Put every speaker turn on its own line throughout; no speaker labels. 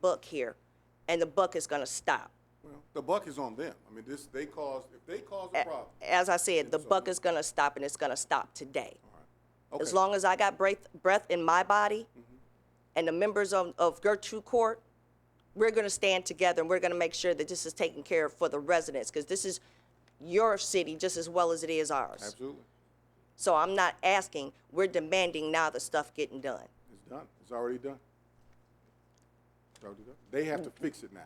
buck here, and the buck is gonna stop.
Well, the buck is on them. I mean, this, they caused, if they caused a problem.
As I said, the buck is gonna stop, and it's gonna stop today. As
Okay. Mm-hmm.
long as I got breath, breath in my body and the members of, of Gertrude Court, we're going to stand together and we're going to make sure that this is taken care of for the residents because this is your city just as well as it is ours.
Absolutely.
So I'm not asking, we're demanding now the stuff getting done.
It's done. It's already done. It's already done. They have to fix it now.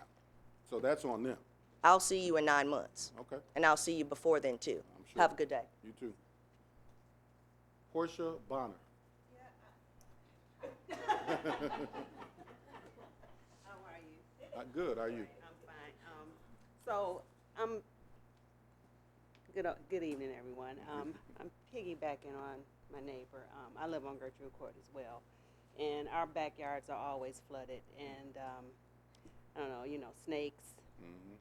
So that's on them.
I'll see you in nine months.
Okay.
And I'll see you before then too.
I'm sure.
Have a good day.
You too. Portia Bonner.
How are you?
Uh, Good, how are you?
I'm fine. Um, so I'm good. o- Good evening, everyone. Um, I'm piggybacking on my neighbor. Um, I live on Gertrude Court as well, and our backyards are always flooded. And um, I don't know, you know, snakes,
Mm-hmm.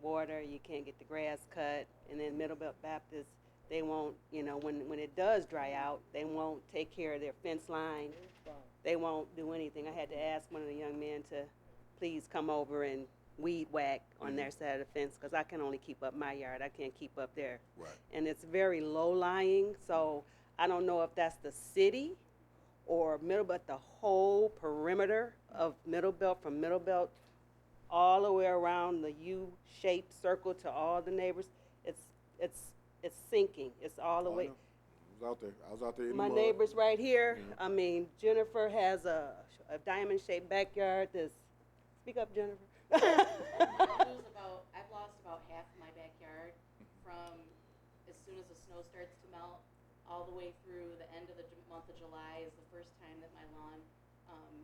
water. You can't get the grass cut, and then Middlebelt Baptist. They won't, you know, when when it does dry out, they won't take care of their fence line they won't do anything. I had to ask one of the young men to please come over and weed whack on their side of the fence because I can only keep up my yard. I can't keep up there.
Right.
And it's very low lying, so I don't know if that's the city or Middle, but the whole perimeter of Middle Belt from Middle Belt all the way around the U-shaped circle to all the neighbors. It's it's it's sinking. It's all the
Oh, I
way
know. I was out there. I was out there in the
my
mud.
neighbors right here. I mean, Jennifer has a, a diamond shaped backyard. This, speak up, Jennifer.
I lose about, I've lost about half of my backyard from as soon as the snow starts to melt, all the way through the end of the ju- month of July is the first time that my lawn, um,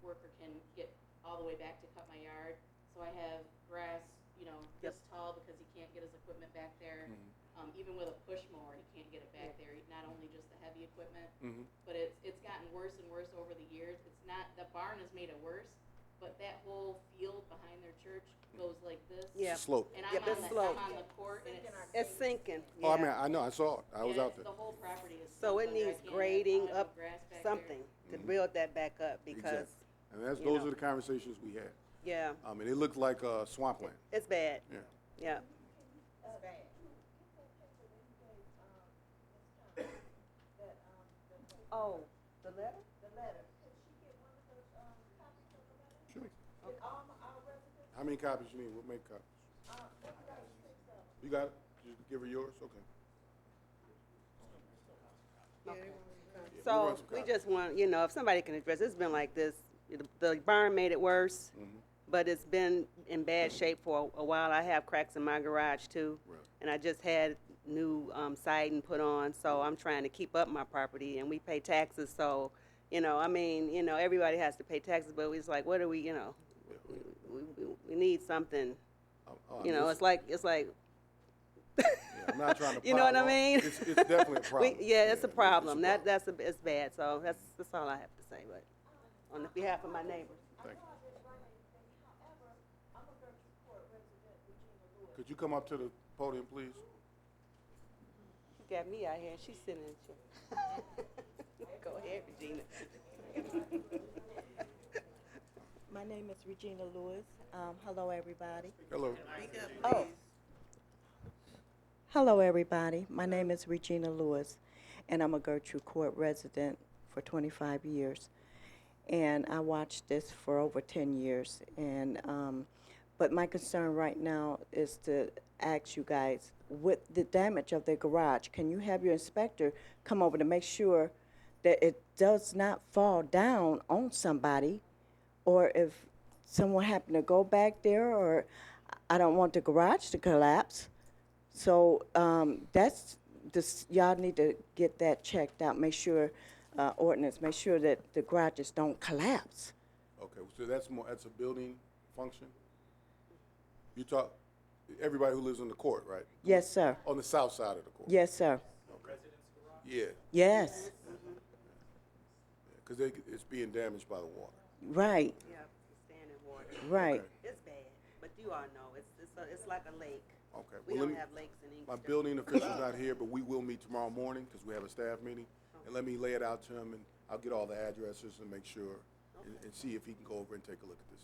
worker can get all the way back to cut my yard. So I have grass, you know, this tall because he can't get his equipment back there.
Mm-hmm.
Um, even with a push mower, he can't get it back there, not only just the heavy equipment,
Mhm.
but it's it's gotten worse and worse over the years. It's not the barn has made it worse, but that whole field behind their church goes like this.
It's a
Yeah.
Slope.
And
Yeah, it's
I'm on the
slow.
I'm on the court and it's
It's sinking.
Oh, I
yeah.
mean, I know, I saw it. I was
yeah,
out there.
The whole property is
so it
sunk under. I
needs
can't have
grading
auto
up
grass back there.
something to build that back up
Mm-hmm.
because,
Exactly. And that's,
you
those
know.
are the conversations we had.
yeah,
I mean, it looked like uh, swampland.
it's bad.
Yeah.
Yeah. Oh, the letter?
Sure. How many copies you need? We'll make copies. You got it? You give her yours? Okay. Yeah, we
So
want some
we
copies.
just want, you know, if somebody can address, it's been like this, the- the barn made it worse,
Mm-hmm.
but it's been in bad shape for a while. I have cracks in my garage too.
Right.
And I just had new um, siding put on, so
Mm-hmm.
I'm trying to keep up my property and we pay taxes, so, you know, I mean, you know, everybody has to pay taxes, but it's like, what do we, you know? We, we- we need something,
Oh, oh,
you know,
this-
it's like, it's like,
yeah, I'm not trying to.
you know what I
pile on.
mean?
It's, it's definitely a problem.
We, yeah, it's a
it's
problem. That, that's, a- it's bad, so that's, that's all I have to say, but on the behalf of my neighbors.
Thank you. Could you come up to the podium, please?
You got me out here, and she's sitting in the chair. Go ahead, Regina.
My name is Regina Lewis. Um, hello, everybody.
Hello.
Oh. Hello, everybody. My name is Regina Lewis, and I'm a Gertrude Court resident for 25 years. And I watched this for over 10 years. And um, but my concern right now is to ask you guys with the damage of the garage, can you have your inspector come over to make sure that it does not fall down on somebody or if someone happened to go back there, or I don't want the garage to collapse. So um, that's this. Y'all need to get that checked out. Make sure uh, ordinance. Make sure that the garages don't collapse.
Okay, so that's more, that's a building function? You talk, everybody who lives on the court, right?
Yes, sir.
On the south side of the court?
Yes, sir.
Yeah,
Yes.
because it's being damaged by the water.
Right.
Yeah, standing water.
Right.
Okay.
It's bad, but you all know, it's, it's, a- it's like a lake.
Okay, well,
We
let
don't
me-
have lakes in
My
Inkster.
building official's not here, but we will meet tomorrow morning because we have a staff meeting. And let me lay it out to him and I'll get all the addresses and make sure and- and see if he can go over and take a look at this.